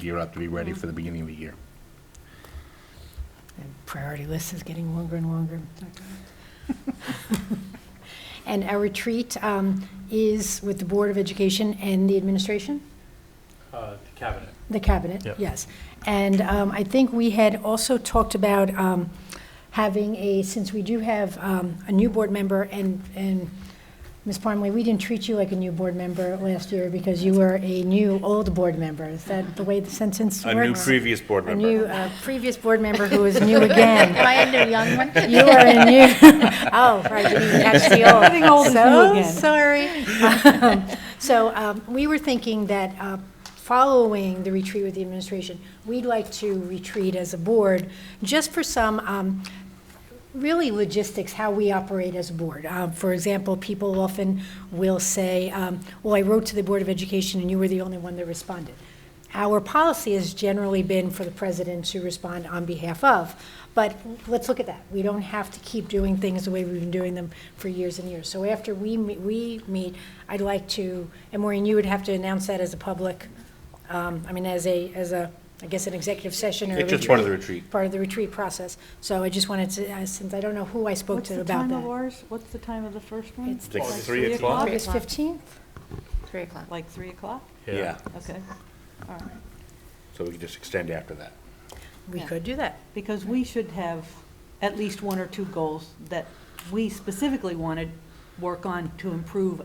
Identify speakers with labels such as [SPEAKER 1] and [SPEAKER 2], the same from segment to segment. [SPEAKER 1] year up to be
[SPEAKER 2] Mm.
[SPEAKER 1] ready for the beginning of the year.
[SPEAKER 2] The priority list is getting longer and longer. And our retreat um, is with the Board of Education and the administration,
[SPEAKER 3] Uh, The cabinet.
[SPEAKER 2] the cabinet,
[SPEAKER 3] Yep.
[SPEAKER 2] yes. And um, I think we had also talked about um, having a, since we do have um, a new board member, and, and Ms. Parmley, we didn't treat you like a new board member last year because you were a new old board member. Is that the way the sentence works?
[SPEAKER 4] A new previous board
[SPEAKER 2] A
[SPEAKER 4] member.
[SPEAKER 2] new uh, previous board member who is new again.
[SPEAKER 5] Am I a new young one?
[SPEAKER 2] You are a new, oh, right, you didn't catch the old.
[SPEAKER 6] Getting old and new again.
[SPEAKER 2] So sorry. So um, we were thinking that uh, following the retreat with the administration, we'd like to retreat as a board, just for some, um, really logistics, how we operate as a board. Um, For example, people often will say, um, well, I wrote to the Board of Education and you were the only one that responded. Our policy has generally been for the president to respond on behalf of, but let's look at that. We don't have to keep doing things the way we've been doing them for years and years. So after we, me- we meet, I'd like to, and Maureen, you would have to announce that as a public, um, I mean, as a, as a, I guess, an executive session or a
[SPEAKER 4] It's just part of the
[SPEAKER 2] retreat
[SPEAKER 4] retreat.
[SPEAKER 2] part of the retreat process. So I just wanted to, uh, since I don't know who I spoke
[SPEAKER 6] What's
[SPEAKER 2] to
[SPEAKER 6] the
[SPEAKER 2] about
[SPEAKER 6] time of
[SPEAKER 2] that.
[SPEAKER 6] ours? What's the time of the first one?
[SPEAKER 2] It's
[SPEAKER 4] like
[SPEAKER 6] Like
[SPEAKER 4] three
[SPEAKER 6] three
[SPEAKER 4] o'clock?
[SPEAKER 6] o'clock?
[SPEAKER 2] August 15th?
[SPEAKER 5] Three o'clock.
[SPEAKER 6] Like 3 o'clock?
[SPEAKER 4] Yeah,
[SPEAKER 6] Okay, all right.
[SPEAKER 4] so we can just extend after that.
[SPEAKER 2] We
[SPEAKER 5] Yeah.
[SPEAKER 2] could do that.
[SPEAKER 6] Because we should have at least one or two goals that we specifically want to work on to improve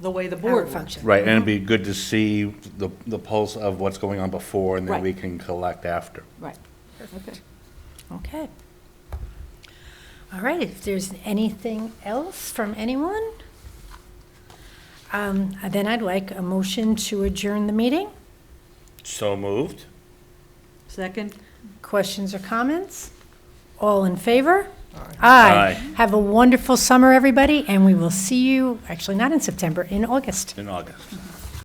[SPEAKER 6] the way the
[SPEAKER 2] Our
[SPEAKER 6] board functions.
[SPEAKER 2] function.
[SPEAKER 1] Right, and it'd be good to see the, the pulse of what's going on before, and then
[SPEAKER 6] Right.
[SPEAKER 1] we can collect after.
[SPEAKER 6] Right, okay.
[SPEAKER 2] Okay. All right, if there's anything else from anyone, um, then I'd like a motion to adjourn the meeting.
[SPEAKER 4] So moved?
[SPEAKER 6] Second?
[SPEAKER 2] Questions or comments? All in favor?
[SPEAKER 4] Aye.
[SPEAKER 2] Have a wonderful summer, everybody, and we will see you, actually not in September, in August.
[SPEAKER 4] In August.